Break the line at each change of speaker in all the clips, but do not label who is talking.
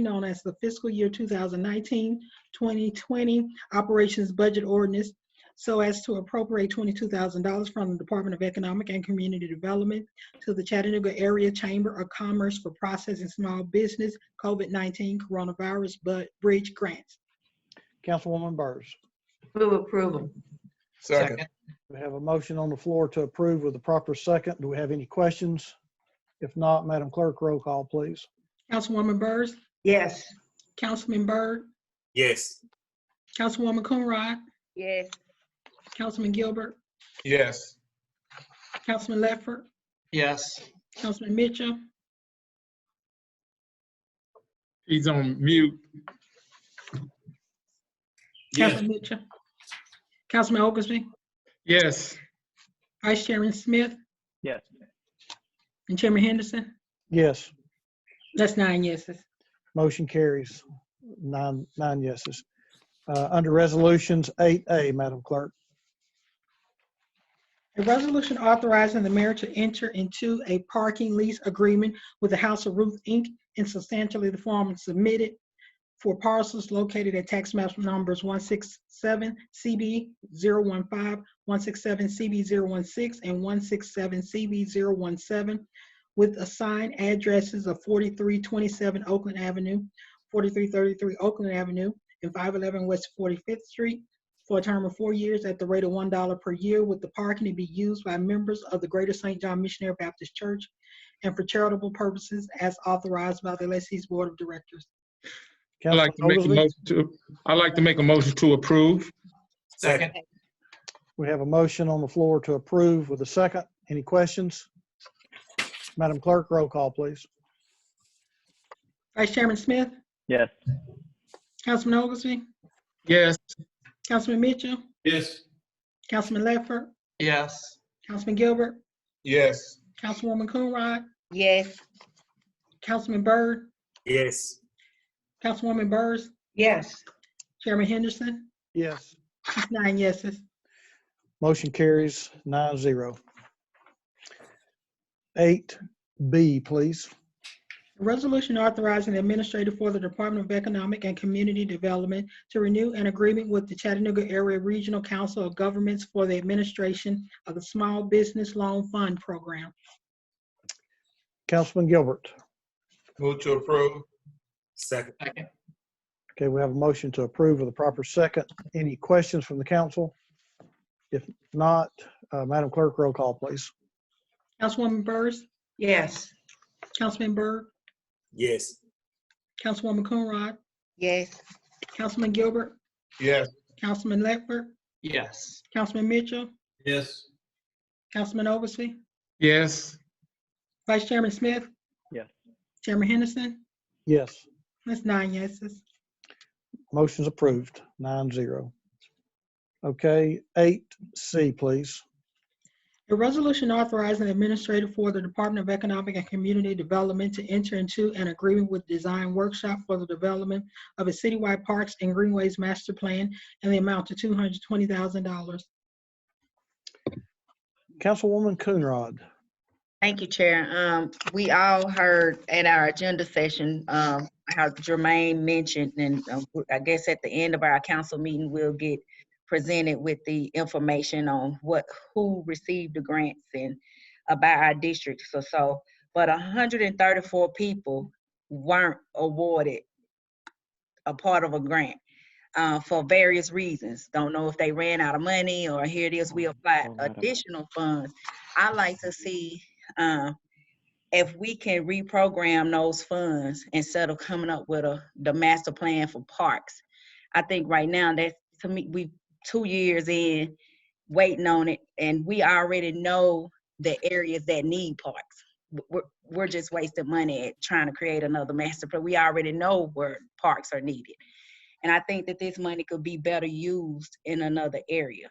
known as the fiscal year 2019-2020 Operations Budget Ordinance so as to appropriate $22,000 from the Department of Economic and Community Development to the Chattanooga Area Chamber of Commerce for processing small business COVID-19 coronavirus bu- bridge grants.
Councilwoman Burrs.
Move approval.
Second.
We have a motion on the floor to approve with a proper second. Do we have any questions? If not, Madam Clerk, roll call, please.
Councilwoman Burrs,
Yes.
Councilman Byrd,
Yes.
Councilwoman Coonrod,
Yes.
Councilman Gilbert,
Yes.
Councilman Ledford,
Yes.
Councilman Mitchell,
He's on mute.
Councilman Mitchell, Councilman Oglesby,
Yes.
Vice Chairman Smith.
Yes.
And Chairman Henderson.
Yes,
That's nine yeses.
motion carries. Nine, nine yeses. Uh, Under Resolutions 8A, Madam Clerk,
A resolution authorizing the mayor to enter into a parking lease agreement with the House of Ruth Inc. in substantially the form submitted for parcels located at tax map numbers 167 CB 015, 167 CB 016, and 167 CB 017 with assigned addresses of 4327 Oakland Avenue, 4333 Oakland Avenue, and 511 West 45th Street for a term of four years at the rate of one dollar per year with the parking to be used by members of the Greater St. John Missionary Baptist Church and for charitable purposes as authorized by the lessee's board of directors.
I'd like to
Councilman
make a
Oglesby?
motion to, I'd like to make a motion to approve.
Second.
We have a motion on the floor to approve with a second. Any questions? Madam Clerk, roll call, please.
Vice Chairman Smith?
Yes.
Councilman Oglesby?
Yes.
Councilman Mitchell?
Yes.
Councilman Ledford?
Yes.
Councilman Gilbert?
Yes.
Councilwoman Coonrod?
Yes.
Councilman Byrd?
Yes.
Councilwoman Byrd?
Yes.
Chairman Henderson?
Yes.
That's nine yeses.
Motion carries nine zero. Eight B, please.
A Resolution authorizing the administrator for the Department of Economic and Community Development to renew an agreement with the Chattanooga Area Regional Council of Governments for the administration of the Small Business Loan Fund Program.
Councilman Gilbert.
Move to approve. Second.
Okay, we have a motion to approve with a proper second. Any questions from the council? If not, uh, Madam Clerk, roll call, please.
Councilwoman Burrs,
Yes.
Councilman Byrd,
Yes.
Councilwoman Coonrod,
Yes.
Councilman Gilbert,
Yes.
Councilman Ledford,
Yes.
Councilman Mitchell,
Yes.
Councilman Oversee,
Yes.
Vice Chairman Smith.
Yes.
Chairman Henderson,
Yes,
that's nine yeses.
motion's approved, nine zero. Okay, eight C, please.
A resolution authorizing the administrator for the Department of Economic and Community Development to enter into an agreement with Design Workshop for the development of a citywide parks and greenways master plan and the amount of two hundred twenty thousand dollars.
Councilwoman Coonrod.
Thank you, Chair. Um, we all heard at our agenda session, um, how Jermaine mentioned, and um, I guess at the end of our council meeting, we'll get presented with the information on what, who received the grants and about our districts or so. But hundred and thirty-four people weren't awarded a part of a grant, uh, for various reasons. Don't know if they ran out of money or here it is, we applied
Oh, madam.
additional funds. I like to see um, if we can reprogram those funds instead of coming up with a, the master plan for parks. I think right now that, to me, we, two years in, waiting on it, and we already know the areas that need parks. W- We're, we're just wasting money at trying to create another master plan. We already know where parks are needed. And I think that this money could be better used in another area.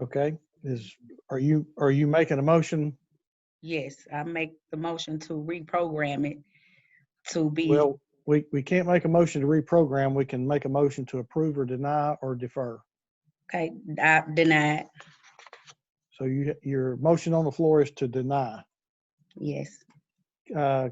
Okay, is, are you, are you making a motion?
Yes, I make the motion to reprogram it to be,
Well, we, we can't make a motion to reprogram. We can make a motion to approve or deny or defer.
okay, I denied,
So you, your motion on the floor is to deny.
yes.
Uh,